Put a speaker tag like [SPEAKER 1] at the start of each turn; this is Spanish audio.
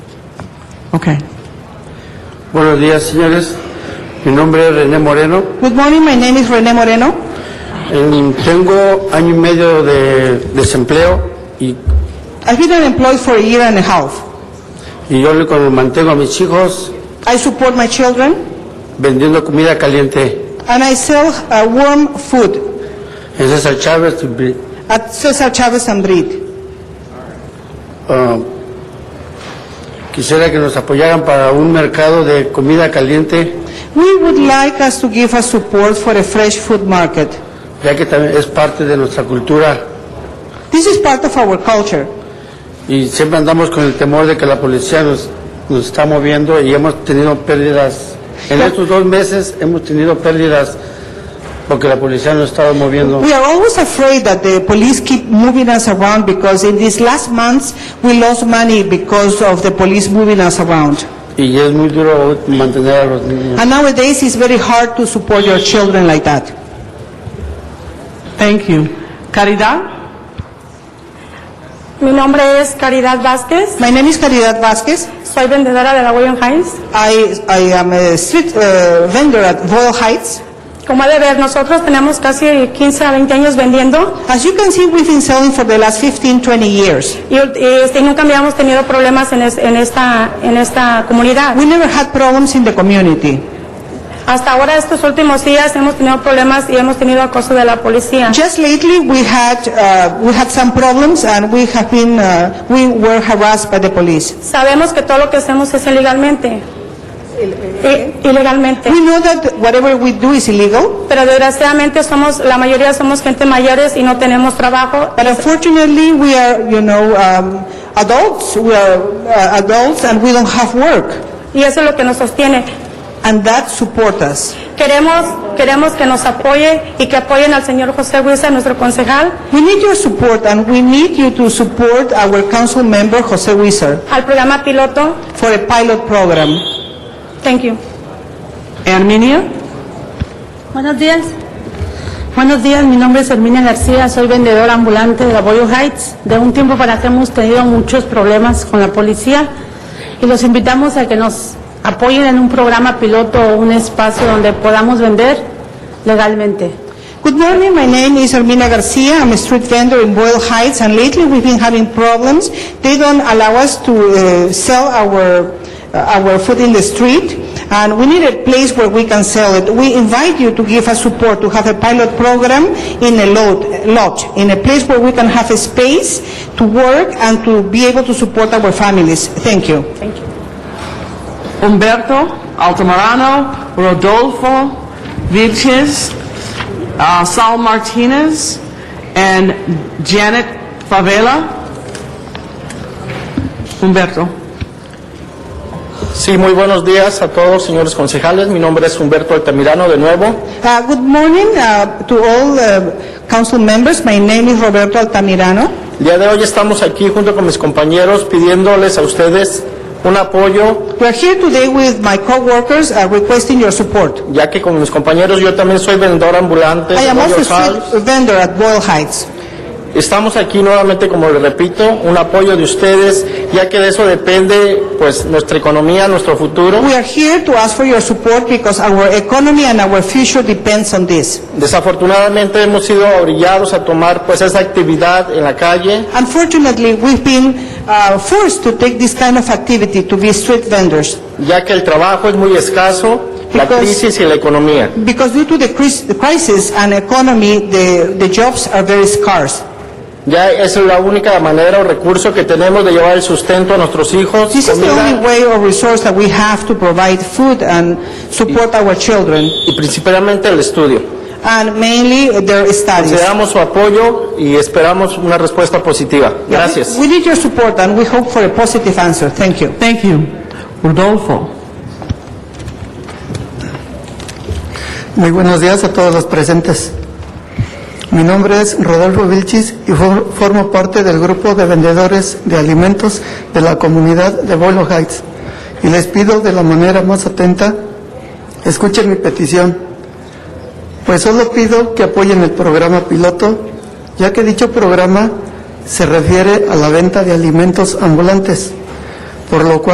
[SPEAKER 1] Okay.
[SPEAKER 2] Buenos días, señores. Mi nombre es René Moreno.
[SPEAKER 1] Good morning, my name is Rene Moreno.
[SPEAKER 2] Em, Tengo año y medio de desempleo y,
[SPEAKER 1] I've been unemployed for a year and a half.
[SPEAKER 2] y yo le con- mantengo a mis hijos
[SPEAKER 1] I support my children
[SPEAKER 2] vendiendo comida caliente
[SPEAKER 1] and I sell uh, warm food
[SPEAKER 2] en César Chávez. Bri-
[SPEAKER 1] at Cesar Chavez and Breed.
[SPEAKER 2] ah, quisiera que nos apoyaran para un mercado de comida caliente,
[SPEAKER 1] We would like us to give us support for a fresh food market.
[SPEAKER 2] ya que también es parte de nuestra cultura
[SPEAKER 1] This is part of our culture.
[SPEAKER 2] y siempre andamos con el temor de que la policía nos, nos está moviendo y hemos tenido pérdidas. En estos dos meses hemos tenido pérdidas porque la policía nos estaba moviendo.
[SPEAKER 1] We are always afraid that the police keep moving us around because in these last months we lost money because of the police moving us around.
[SPEAKER 2] Y es muy duro mantener a los niños.
[SPEAKER 1] And nowadays it's very hard to support your children like that. Thank you. Caridad?
[SPEAKER 3] Mi nombre es Caridad Vázquez,
[SPEAKER 1] My name is Caridad Vasquez.
[SPEAKER 3] soy vendedora de la William Hines.
[SPEAKER 1] I, I am a street uh, vendor at Royal Heights.
[SPEAKER 3] Como ha de ver, nosotros tenemos casi 15 a 20 años vendiendo
[SPEAKER 1] As you can see, we've been selling for the last 15, 20 years.
[SPEAKER 3] y, y, este, y nunca habíamos tenido problemas en, es- en esta, en esta comunidad.
[SPEAKER 1] We never had problems in the community.
[SPEAKER 3] Hasta ahora, estos últimos días, hemos tenido problemas y hemos tenido acoso de la policía.
[SPEAKER 1] Just lately, we had, uh, we had some problems and we have been, uh, we were harassed by the police.
[SPEAKER 3] Sabemos que todo lo que hacemos es ilegalmente. I- Ilegalmente.
[SPEAKER 1] We know that whatever we do is illegal,
[SPEAKER 3] Pero desgraciadamente somos, la mayoría somos gente mayores y no tenemos trabajo.
[SPEAKER 1] but unfortunately, we are, you know, um, adults, we are uh, adults and we don't have work.
[SPEAKER 3] Y eso es lo que nos sostiene.
[SPEAKER 1] And that support us.
[SPEAKER 3] Queremos, queremos que nos apoye y que apoyen al señor José Huiza, nuestro concejal,
[SPEAKER 1] We need your support and we need you to support our council member, Jose Wizard,
[SPEAKER 3] al programa piloto.
[SPEAKER 1] for a pilot program.
[SPEAKER 3] Thank you.
[SPEAKER 1] Armenia?
[SPEAKER 4] Buenos días. Buenos días, mi nombre es Herminia García, soy vendedora ambulante de la Boyo Heights. De un tiempo para acá hemos tenido muchos problemas con la policía y los invitamos a que nos apoyen en un programa piloto o un espacio donde podamos vender legalmente.
[SPEAKER 1] Good morning, my name is Ermina Garcia, I'm a street vendor in Boyle Heights, and lately we've been having problems. They don't allow us to uh, sell our, uh, our food in the street, and we need a place where we can sell it. We invite you to give us support, to have a pilot program in a lot, lot, in a place where we can have a space to work and to be able to support our families. Thank you.
[SPEAKER 5] Humberto Altamirano, Rodolfo Vilches, uh, Sal Martinez, and Janet Favela. Humberto.
[SPEAKER 6] Sí, muy buenos días a todos, señores concejales. Mi nombre es Humberto Altamirano, de nuevo.
[SPEAKER 1] Uh, Good morning uh, to all uh, council members, my name is Roberto Altamirano.
[SPEAKER 6] El día de hoy estamos aquí junto con mis compañeros pidiéndoles a ustedes un apoyo,
[SPEAKER 1] We're here today with my coworkers uh, requesting your support.
[SPEAKER 6] ya que con mis compañeros yo también soy vendedor ambulante.
[SPEAKER 1] I am
[SPEAKER 6] de
[SPEAKER 1] also a
[SPEAKER 6] Royal House.
[SPEAKER 1] street vendor at Boyle Heights.
[SPEAKER 6] Estamos aquí nuevamente, como les repito, un apoyo de ustedes, ya que de eso depende pues nuestra economía, nuestro futuro.
[SPEAKER 1] We are here to ask for your support because our economy and our future depends on this.
[SPEAKER 6] Desafortunadamente hemos sido obligados a tomar pues esa actividad en la calle.
[SPEAKER 1] Unfortunately, we've been uh, forced to take this kind of activity to be street vendors
[SPEAKER 6] ya que el trabajo es muy escaso, la
[SPEAKER 1] Because-
[SPEAKER 6] crisis y la economía.
[SPEAKER 1] because due to the cris- the crisis and economy, the the jobs are very scarce.
[SPEAKER 6] Ya es la única manera o recurso que tenemos de llevar el sustento a nuestros hijos.
[SPEAKER 1] This is the
[SPEAKER 6] comida,
[SPEAKER 1] only way or resource that we have to provide food and support our children,
[SPEAKER 6] y principalmente el estudio.
[SPEAKER 1] and mainly their
[SPEAKER 6] Le
[SPEAKER 1] studies.
[SPEAKER 6] damos su apoyo y esperamos una respuesta positiva. Gracias.
[SPEAKER 1] We need your support and we hope for a positive answer. Thank you.
[SPEAKER 5] Thank you. Rodolfo.
[SPEAKER 7] Muy buenos días a todos los presentes. Mi nombre es Rodolfo Vilchis y for- formo parte del grupo de vendedores de alimentos de la comunidad de Bolo Heights. Y les pido de la manera más atenta, escuchen mi petición. Pues solo pido que apoyen el programa piloto, ya que dicho programa se refiere a la venta de alimentos ambulantes, por lo cual